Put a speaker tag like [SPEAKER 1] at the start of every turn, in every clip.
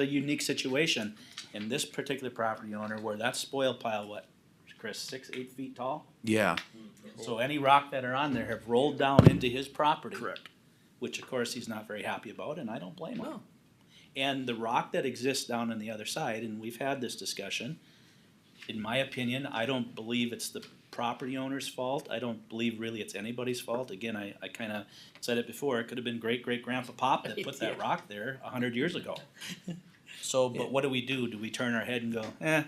[SPEAKER 1] a unique situation. And this particular property owner, where that spoil pile, what, Chris, six, eight feet tall?
[SPEAKER 2] Yeah,
[SPEAKER 1] So any rock that are on there have rolled down into his property.
[SPEAKER 2] Correct.
[SPEAKER 1] Which of course he's not very happy about, and I don't blame him. And the rock that exists down on the other side, and we've had this discussion, in my opinion, I don't believe it's the property owner's fault. I don't believe really it's anybody's fault. Again, I, I kinda said it before, it could have been great great grandpa Pop that put that
[SPEAKER 3] Yeah.
[SPEAKER 1] rock there a hundred years ago. So, but what do we do? Do we turn our head and go, eh?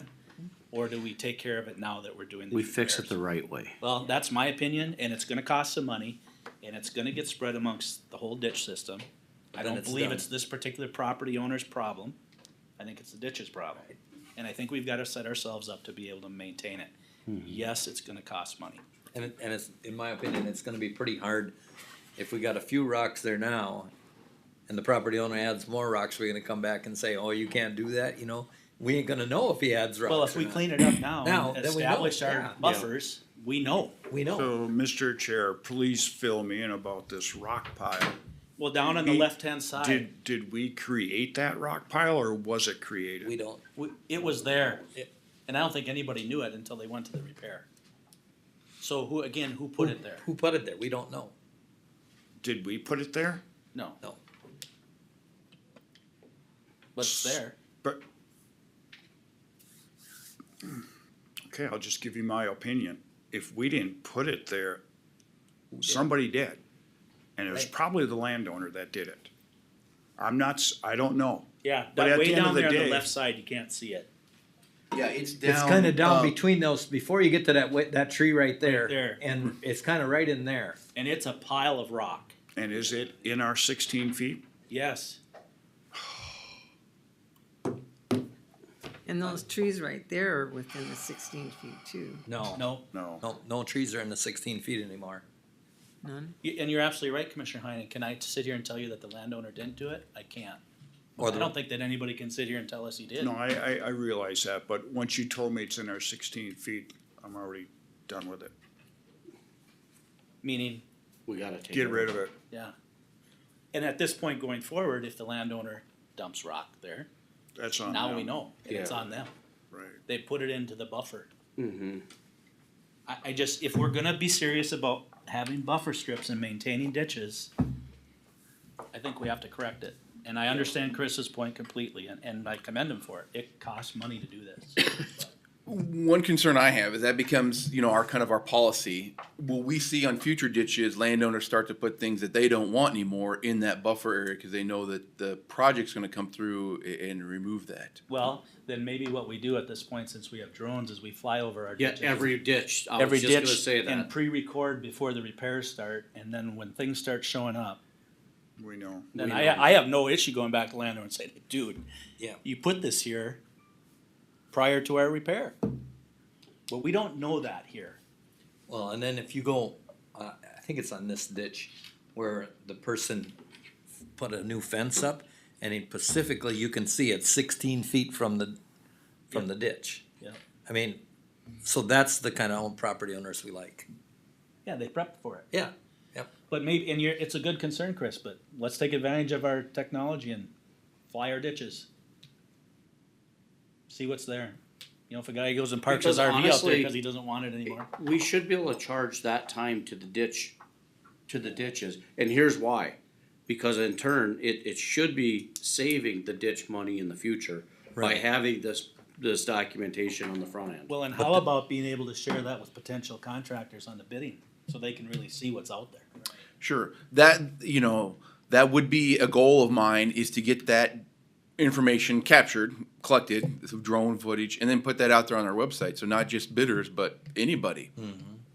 [SPEAKER 1] Or do we take care of it now that we're doing the
[SPEAKER 4] We fix it
[SPEAKER 1] repairs?
[SPEAKER 4] the right way.
[SPEAKER 1] Well, that's my opinion, and it's gonna cost some money, and it's gonna get spread amongst the whole ditch system. I
[SPEAKER 2] then
[SPEAKER 1] don't
[SPEAKER 2] it's
[SPEAKER 1] believe
[SPEAKER 2] done.
[SPEAKER 1] it's this particular property owner's problem. I think it's the ditch's problem. And I think we've gotta set ourselves up to be able to maintain it.
[SPEAKER 2] Hmm.
[SPEAKER 1] Yes, it's gonna cost money.
[SPEAKER 2] and it, and it's in my opinion, it's going to be pretty hard if we got a few rocks there now, and the property owner adds more rocks. We're going to come back and say, oh, you can't do that. You know, we ain't going to know if he adds rocks.
[SPEAKER 1] Well, if
[SPEAKER 2] or
[SPEAKER 1] we
[SPEAKER 2] not.
[SPEAKER 1] clean it up now
[SPEAKER 2] Now,
[SPEAKER 1] and
[SPEAKER 2] then we know,
[SPEAKER 1] establish
[SPEAKER 2] yeah.
[SPEAKER 1] our buffers, we know.
[SPEAKER 2] we know.
[SPEAKER 5] So, Mr. Chair, please fill me in about this rock pile.
[SPEAKER 1] Well, down on the
[SPEAKER 5] We-
[SPEAKER 1] left-hand side,
[SPEAKER 5] Did, did we create that rock pile or was it
[SPEAKER 2] we
[SPEAKER 5] created?
[SPEAKER 2] don't.
[SPEAKER 1] we- it was there,
[SPEAKER 2] It-
[SPEAKER 1] and I don't think anybody knew it until they went to the repair. So who, again, who put it there?
[SPEAKER 2] Who put it there? We don't know.
[SPEAKER 5] Did we put it there?
[SPEAKER 1] No.
[SPEAKER 2] No.
[SPEAKER 1] But it's there.
[SPEAKER 5] But. Okay, I'll just give you my opinion. If we didn't put it there, somebody did. And it was
[SPEAKER 2] Right.
[SPEAKER 5] probably the landowner that did it. I'm not, s- I don't know.
[SPEAKER 1] Yeah,
[SPEAKER 5] But
[SPEAKER 1] that
[SPEAKER 5] at
[SPEAKER 1] way
[SPEAKER 5] the end
[SPEAKER 1] down
[SPEAKER 5] of the
[SPEAKER 1] there on the
[SPEAKER 5] day-
[SPEAKER 1] left side, you can't see it.
[SPEAKER 6] Yeah, it's down.
[SPEAKER 4] It's kinda down
[SPEAKER 6] uh,
[SPEAKER 4] Um, between those, before you get to that, wa- that tree right
[SPEAKER 1] Um, there.
[SPEAKER 4] there, and it's kinda right in there.
[SPEAKER 1] And it's a pile of rock.
[SPEAKER 5] And is it in our sixteen feet?
[SPEAKER 1] Yes.
[SPEAKER 3] And those trees right there are within the sixteen feet too,
[SPEAKER 2] No.
[SPEAKER 1] No.
[SPEAKER 5] No.
[SPEAKER 2] No. No trees are in the 16 feet anymore.
[SPEAKER 3] none?
[SPEAKER 1] You- And you're absolutely right, Commissioner Heinen. Can I sit here and tell you that the landowner didn't do it? I can't.
[SPEAKER 2] Or
[SPEAKER 1] I
[SPEAKER 2] the,
[SPEAKER 1] don't think that anybody can sit here and tell us he did.
[SPEAKER 5] No, I, I, I realize that, but once you told me it's in our sixteen feet, I'm already done with it.
[SPEAKER 1] Meaning,
[SPEAKER 6] We gotta take.
[SPEAKER 5] Get rid of it.
[SPEAKER 1] yeah. And at this point going forward, if the landowner dumps rock there,
[SPEAKER 5] That's on
[SPEAKER 1] now we
[SPEAKER 5] them.
[SPEAKER 1] know. and It's
[SPEAKER 6] Yeah.
[SPEAKER 1] on them.
[SPEAKER 5] Right.
[SPEAKER 1] They put it into the buffer.
[SPEAKER 6] Mm-hmm.
[SPEAKER 1] I, I just, if we're gonna be serious about having buffer strips and maintaining ditches, I think we have to correct it. And I understand Chris's point completely, and, and I commend him for it. It costs money to do this.
[SPEAKER 7] One concern I have is that becomes, you know, our kind of our policy. Will we see on future ditches landowners start to put things that they don't want anymore in that buffer area because they know that the project's gonna come through a- and remove that?
[SPEAKER 1] Well, then maybe what we do at this point, since we have drones, is we fly over our
[SPEAKER 6] Yeah,
[SPEAKER 1] ditches.
[SPEAKER 6] every ditch. I
[SPEAKER 1] Every
[SPEAKER 6] was just gonna
[SPEAKER 1] ditch
[SPEAKER 6] say
[SPEAKER 1] and
[SPEAKER 6] that.
[SPEAKER 1] pre-record before the repairs start, and then when things start showing up,
[SPEAKER 5] We know.
[SPEAKER 1] then
[SPEAKER 6] We
[SPEAKER 1] I,
[SPEAKER 6] know.
[SPEAKER 1] I have no issue going back to landowner and saying, dude,
[SPEAKER 2] Yeah.
[SPEAKER 1] you put this here prior to our repair. But we don't know that here.
[SPEAKER 2] Well, and then if you go, uh, I think it's on this ditch where the person put a new fence up, and in Pacifically, you can see it sixteen feet from the, from the ditch.
[SPEAKER 1] Yeah.
[SPEAKER 2] I mean, so that's the kind of own property owners we like.
[SPEAKER 1] Yeah, they prepped for it.
[SPEAKER 2] Yeah.
[SPEAKER 1] But maybe, and you're, it's a good concern, Chris, but let's take advantage of our technology and fly our ditches. See what's there. You know, if a guy goes and parks his
[SPEAKER 6] Because
[SPEAKER 1] RV out there
[SPEAKER 6] honestly-
[SPEAKER 1] because he doesn't want it anymore.
[SPEAKER 6] We should be able to charge that time to the ditch, to the ditches, and here's why. Because in turn, it, it should be saving the ditch money in the future by
[SPEAKER 2] Right.
[SPEAKER 6] having this, this documentation on the front end.
[SPEAKER 1] Well, and how about being able to share that with potential contractors on the bidding, so they can really see what's out there?
[SPEAKER 7] Sure, that, you know, that would be a goal of mine is to get that information captured, collected, through drone footage, and then put that out there on our website. So not just bidders, but anybody.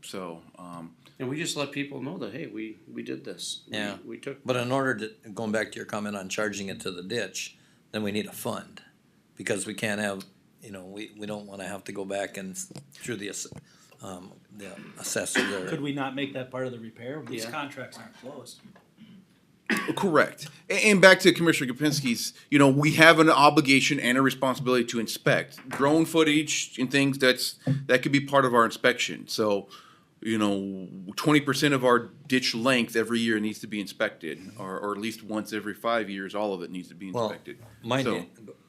[SPEAKER 7] So, um,
[SPEAKER 6] And we just let people know that, hey, we, we did this. We-
[SPEAKER 2] Yeah.
[SPEAKER 6] We took.
[SPEAKER 2] But in order to, going back to your comment on charging it to the ditch, then we need a fund, because we can't have, you know, we, we don't wanna have to go back and s- through the, ass- um, the assessor.
[SPEAKER 1] Could we not make that part of the repair? These
[SPEAKER 6] Yeah.
[SPEAKER 1] contracts aren't closed.
[SPEAKER 7] Correct. A- And back to Commissioner Kapinski's, you know, we have an obligation and a responsibility to inspect drone footage and things that's, that could be part of our inspection. So, you know, twenty percent of our ditch length every year needs to be inspected, or, or at least once every five years, all of it needs to be
[SPEAKER 2] Well,
[SPEAKER 7] inspected.
[SPEAKER 2] Mind
[SPEAKER 7] So-
[SPEAKER 2] you,